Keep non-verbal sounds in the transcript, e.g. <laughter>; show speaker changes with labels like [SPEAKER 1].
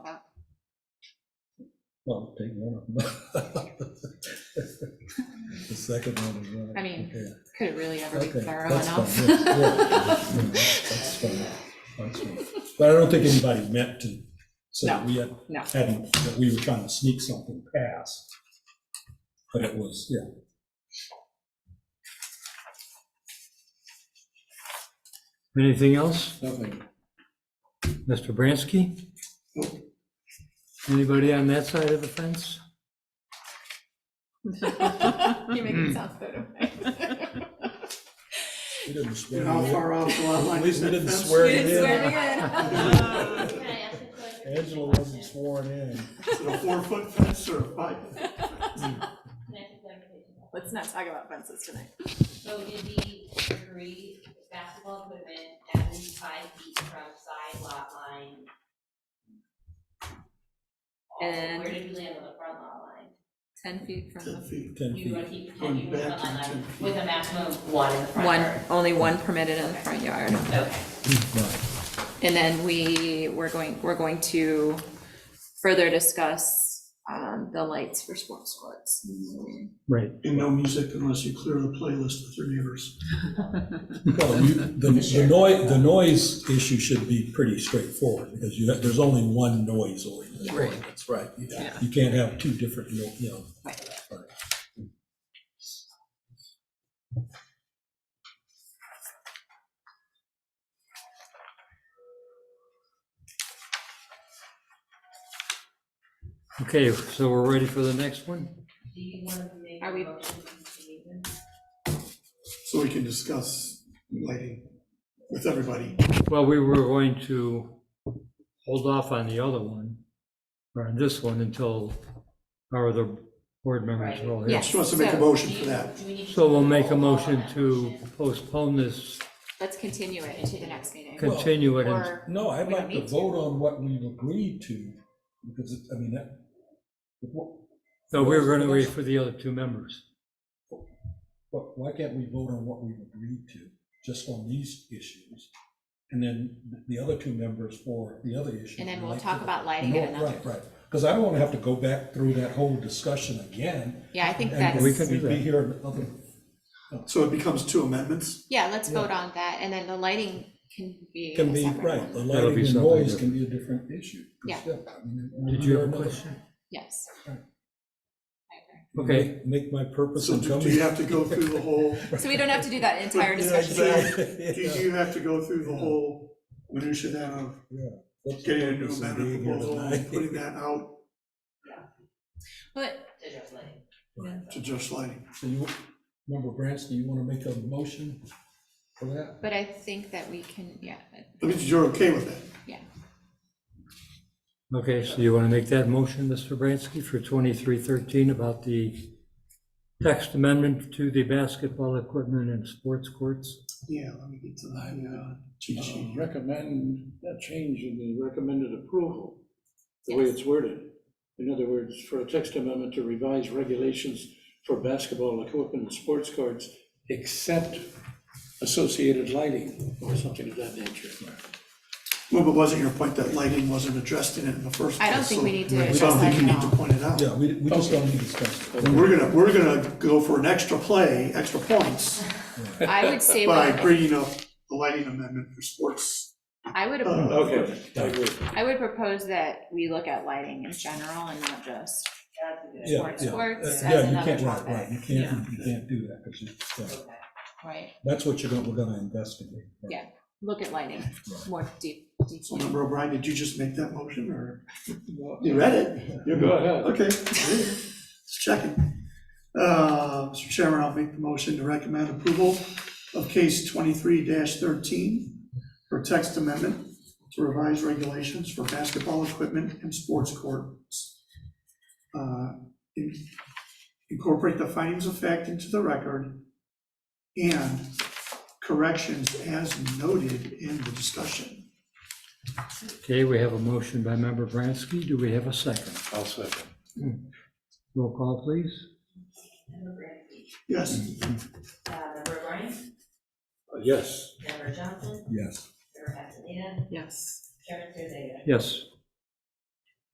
[SPEAKER 1] Well, take one of them. <laughs> The second one is right.
[SPEAKER 2] I mean,
[SPEAKER 1] okay.
[SPEAKER 2] Could it really ever be
[SPEAKER 1] Okay,
[SPEAKER 2] thorough
[SPEAKER 1] that's
[SPEAKER 2] enough?
[SPEAKER 1] fine,
[SPEAKER 2] <laughs>
[SPEAKER 1] yeah, yeah, yeah, That's fine, that's fine. But I don't think anybody meant to say that
[SPEAKER 2] No,
[SPEAKER 1] we had,
[SPEAKER 2] no.
[SPEAKER 1] hadn't, that we were trying to sneak something past. But it was, yeah.
[SPEAKER 3] Anything else,
[SPEAKER 4] Nothing.
[SPEAKER 3] Mr. Bransky? Anybody on that side of the fence?
[SPEAKER 2] You make it sound so
[SPEAKER 1] <laughs>
[SPEAKER 2] <laughs> away.
[SPEAKER 1] We didn't swear.
[SPEAKER 4] And how far off the lot line
[SPEAKER 1] At least
[SPEAKER 4] is
[SPEAKER 1] we
[SPEAKER 4] that
[SPEAKER 1] didn't
[SPEAKER 4] fence?
[SPEAKER 1] swear
[SPEAKER 2] You didn't
[SPEAKER 1] it in.
[SPEAKER 2] swear me in.
[SPEAKER 5] Can I ask a question?
[SPEAKER 1] Angela wasn't sworn in.
[SPEAKER 4] Is it a four-foot fence or a five?
[SPEAKER 5] Can I ask a clarification?
[SPEAKER 2] <laughs> Let's not talk about fences tonight.
[SPEAKER 5] So did we agree basketball equipment at least five feet from side lot line? Also,
[SPEAKER 2] And-
[SPEAKER 5] where did we land on the front lot line?
[SPEAKER 2] Ten feet from the,
[SPEAKER 4] Ten feet.
[SPEAKER 1] Ten
[SPEAKER 5] You want
[SPEAKER 1] feet.
[SPEAKER 5] to keep
[SPEAKER 4] Going
[SPEAKER 5] ten feet from the
[SPEAKER 4] back
[SPEAKER 5] front
[SPEAKER 4] to
[SPEAKER 5] lot line
[SPEAKER 4] 10 feet.
[SPEAKER 5] with a maximum of one in the front
[SPEAKER 2] one,
[SPEAKER 5] yard?
[SPEAKER 2] only one permitted in the front yard.
[SPEAKER 5] Okay,
[SPEAKER 1] Right.
[SPEAKER 2] And then we, we're going, we're going to further discuss, um, the lights for sports courts.
[SPEAKER 3] Right.
[SPEAKER 4] And no music unless you clear the playlist with your neighbors.
[SPEAKER 1] Well, you, the, the noise, the noise issue should be pretty straightforward, because you, have- there's only one noise ordinance. That's right. You- You can't have two different, no- you know,
[SPEAKER 3] Okay, so we're ready for the next one?
[SPEAKER 5] do you want to make a
[SPEAKER 2] Are we-
[SPEAKER 5] motion to leave them?
[SPEAKER 4] So we can discuss lighting with everybody.
[SPEAKER 3] Well, we were going to hold off on the other one, or on this one, until our other board members are all here.
[SPEAKER 2] Yes.
[SPEAKER 4] She wants to make a
[SPEAKER 2] So,
[SPEAKER 4] motion
[SPEAKER 5] Do
[SPEAKER 4] for
[SPEAKER 5] you-
[SPEAKER 4] that.
[SPEAKER 5] do we need to
[SPEAKER 3] So we'll
[SPEAKER 5] do
[SPEAKER 3] make a
[SPEAKER 5] roll call on
[SPEAKER 3] motion
[SPEAKER 5] that
[SPEAKER 3] to
[SPEAKER 5] motion?
[SPEAKER 3] postpone this,
[SPEAKER 2] Let's continue it to the next meeting.
[SPEAKER 3] continue it, and-
[SPEAKER 2] Or,
[SPEAKER 1] No, I'd
[SPEAKER 2] We don't
[SPEAKER 1] like to
[SPEAKER 2] need to.
[SPEAKER 1] vote on what we've agreed to, because, it- I mean, that, what,
[SPEAKER 3] no, we were going to wait for the other two members.
[SPEAKER 1] what, why can't we vote on what we've agreed to, just on these issues? And then the other two members for the other issue.
[SPEAKER 2] and then we'll
[SPEAKER 1] like
[SPEAKER 2] talk
[SPEAKER 1] to-
[SPEAKER 2] about lighting at
[SPEAKER 1] No,
[SPEAKER 2] another.
[SPEAKER 1] Right, right, because I don't want to have to go back through that whole discussion again.
[SPEAKER 2] Yeah, I think
[SPEAKER 1] and
[SPEAKER 2] that's.
[SPEAKER 3] We could do
[SPEAKER 1] we'd
[SPEAKER 3] that.
[SPEAKER 1] Be here another,
[SPEAKER 4] So it becomes two amendments.
[SPEAKER 2] Yeah, let's
[SPEAKER 1] Yeah.
[SPEAKER 2] vote on that, and then the lighting can be.
[SPEAKER 1] can
[SPEAKER 2] a
[SPEAKER 1] be,
[SPEAKER 2] separate
[SPEAKER 1] right,
[SPEAKER 2] one.
[SPEAKER 1] the
[SPEAKER 3] That'll
[SPEAKER 1] lighting
[SPEAKER 3] be
[SPEAKER 1] and
[SPEAKER 3] something
[SPEAKER 1] noise can be a different issue. 'cause,
[SPEAKER 2] Yeah.
[SPEAKER 1] I mean, it-
[SPEAKER 3] Did you have a
[SPEAKER 1] another-
[SPEAKER 3] question?
[SPEAKER 2] Yes.
[SPEAKER 1] Right.
[SPEAKER 2] I
[SPEAKER 3] Okay,
[SPEAKER 1] Make- Make my purpose
[SPEAKER 4] So
[SPEAKER 1] in
[SPEAKER 4] do
[SPEAKER 1] coming.
[SPEAKER 4] do you have to go through
[SPEAKER 1] <laughs>
[SPEAKER 4] the whole,
[SPEAKER 2] agree. So we don't have to do that entire
[SPEAKER 4] Yeah,
[SPEAKER 2] discussion.
[SPEAKER 4] exactly.
[SPEAKER 1] Yeah.
[SPEAKER 4] do you have to go through the whole minutia then of
[SPEAKER 1] What's the
[SPEAKER 4] getting a new
[SPEAKER 1] purpose of
[SPEAKER 4] amendment
[SPEAKER 1] being here
[SPEAKER 4] proposal
[SPEAKER 1] tonight? <laughs>
[SPEAKER 4] and putting that out
[SPEAKER 2] But
[SPEAKER 5] To just like-
[SPEAKER 4] to just lighting?
[SPEAKER 1] So you, member Branch, do you want to make a motion for that?
[SPEAKER 2] but I think that we can, yeah, but-
[SPEAKER 4] I mean, you're okay with that?
[SPEAKER 2] yeah.
[SPEAKER 3] okay, so you want to make that motion, Mr. Bransky, for 2313 about the text amendment to the basketball equipment and sports courts?
[SPEAKER 4] Yeah, let me get to the, uh, cheat
[SPEAKER 6] uh,
[SPEAKER 4] sheet.
[SPEAKER 6] recommend that change in the recommended approval, the way it's worded. In other words, for a text amendment to revise regulations for basketball equipment and sports courts, except associated lighting or something of that nature.
[SPEAKER 4] Well, but wasn't your point that lighting wasn't addressed in it in the first place?
[SPEAKER 2] I don't think we need to
[SPEAKER 4] So-
[SPEAKER 2] address
[SPEAKER 4] So I don't think you
[SPEAKER 2] lighting at
[SPEAKER 4] need
[SPEAKER 2] all.
[SPEAKER 4] to point it out.
[SPEAKER 1] Yeah, we, we just don't need to discuss it.
[SPEAKER 4] And We're gonna, we're gonna go for an extra play,
[SPEAKER 2] <laughs>
[SPEAKER 4] extra points,
[SPEAKER 2] I would say, we-
[SPEAKER 4] by bringing up the lighting amendment for sports.
[SPEAKER 2] I would,
[SPEAKER 6] Okay, I agree.
[SPEAKER 2] I would propose that we look at lighting in general and not just.
[SPEAKER 5] That's a good-
[SPEAKER 1] Yeah,
[SPEAKER 2] Sports,
[SPEAKER 1] yeah.
[SPEAKER 2] sports,
[SPEAKER 1] Uh,
[SPEAKER 2] that's
[SPEAKER 1] yeah, you
[SPEAKER 2] another
[SPEAKER 1] can't- right,
[SPEAKER 2] topic.
[SPEAKER 1] right, You can't, you can't do that, because you, yeah.
[SPEAKER 5] Okay.
[SPEAKER 2] Right.
[SPEAKER 1] that's what you're going, we're going to investigate. right?
[SPEAKER 2] Yeah. Look at lighting more deep,
[SPEAKER 4] So
[SPEAKER 2] deeply.
[SPEAKER 4] member O'Brien, did you just make that motion, or? You read it?
[SPEAKER 6] You go ahead.
[SPEAKER 4] Okay, just checking. Uh, Mr. Chairman, I'll make the motion to recommend approval of case twenty-three thirteen for text amendment to revise regulations for basketball equipment and sports courts. Uh, in- Incorporate the findings of fact into the record and corrections as noted in the discussion.
[SPEAKER 3] Okay, we have a motion by member Bransky. Do we have a second? Hmm.
[SPEAKER 6] I'll second.
[SPEAKER 3] Roll call, please.
[SPEAKER 5] Member Brantley,
[SPEAKER 4] Yes,
[SPEAKER 5] uh, Member Bryan,
[SPEAKER 6] Yes.
[SPEAKER 5] Member Johnson,
[SPEAKER 1] Yes.
[SPEAKER 5] Member Castaneda,
[SPEAKER 2] Yes.
[SPEAKER 5] Chairman Thursday.
[SPEAKER 3] Yes.